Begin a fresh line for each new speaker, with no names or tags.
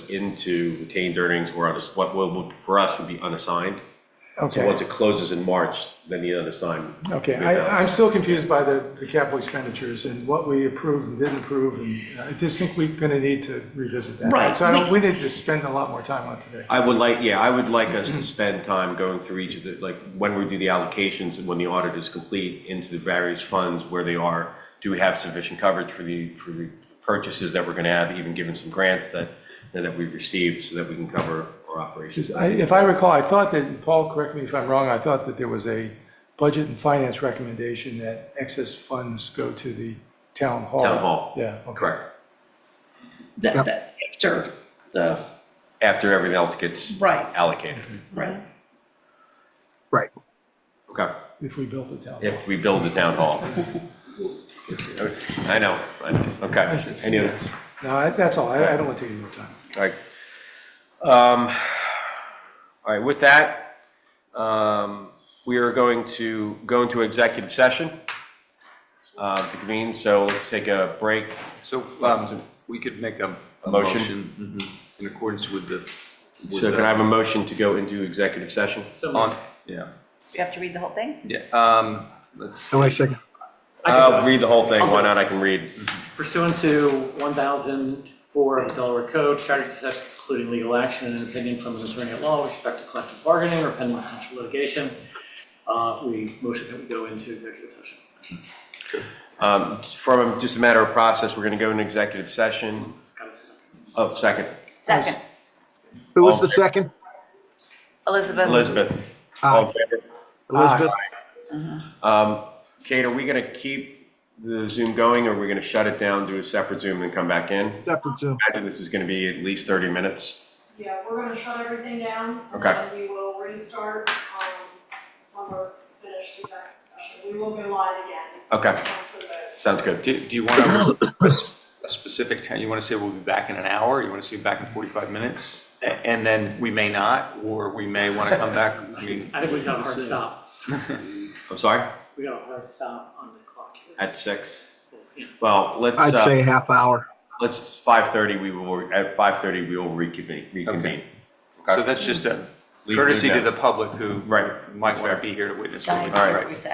into retained earnings or unass- what will, for us, would be unassigned. So
Okay,
once it closes in March, then the unassigned.
okay. I, I'm still confused by the, the capital expenditures and what we approved and didn't approve. And I just think we're gonna need to revisit that.
Right,
So I don't, we need to spend a lot more time on today.
I would like, yeah, I would like us to spend time going through each of the, like, when we do the allocations, and when the audit is complete, into the various funds, where they are. Do we have sufficient coverage for the, for the purchases that we're gonna have, even given some grants that, that we received, so that we can cover our operations?
Just, I, if I recall, I thought that, Paul, correct me if I'm wrong, I thought that there was a budget and finance recommendation that excess funds go to the town hall.
Town hall.
Yeah, okay.
Correct.
that, that after the,
After everything else gets
right,
allocated.
Mm-hmm.
right.
Right.
Okay.
If we built the town hall.
If we build the town hall. I know, I know, okay. Any other?
No, I- that's all. I, I don't want to take any more time.
All right. Um, All right, with that, um, we are going to go into executive session uh, to convene, so let's take a break.
So um, we could make a a
Motion.
motion mhm, in accordance with the. with
So can
the-
I have a motion to go into executive session?
on- Yeah,
Do you have to read the whole thing?
yeah. um, Let's, see.
So wait a second.
I'll read the whole thing, why not, I can read.
Pursuant to 1004 of the Delaware Code, strategy sessions including legal action and opinion from an attorney at law with respect to collective bargaining or pending potential litigation, uh, we motion that we go into executive session.
Um, From, just a matter of process, we're going to go into executive session.
Got it, so.
Oh, second,
Second,
Who was the second?
Elizabeth.
Elizabeth. All in favor?
Elizabeth?
Um, Kate, are we going to keep the Zoom going, or are we going to shut it down, do a separate Zoom, and come back in?
Separate Zoom.
imagine this is gonna be at least thirty minutes.
Yeah, we're gonna shut everything down.
Okay.
And then we will restart, um, when we're finished executive session. We will go live again.
Okay,
after the vote.
sounds good.
do do you want to, a specific time, you want to say we'll be back in an hour? You want to say back in 45 minutes? A- And then we may not, or we may want to come back. I mean,
I think we got a hard stop.
I'm sorry,
We got a hard stop on the clock here.
at six?
Yeah.
Well, let's,
I'd say
uh,
half hour.
let's, five thirty, we will, at five thirty, we will reconvene, reconvene.
so that's just a
Leave- leave
courtesy to
that.
the public who
Right.
might want to be here to witness. what we-
Diane,
All right.
we said.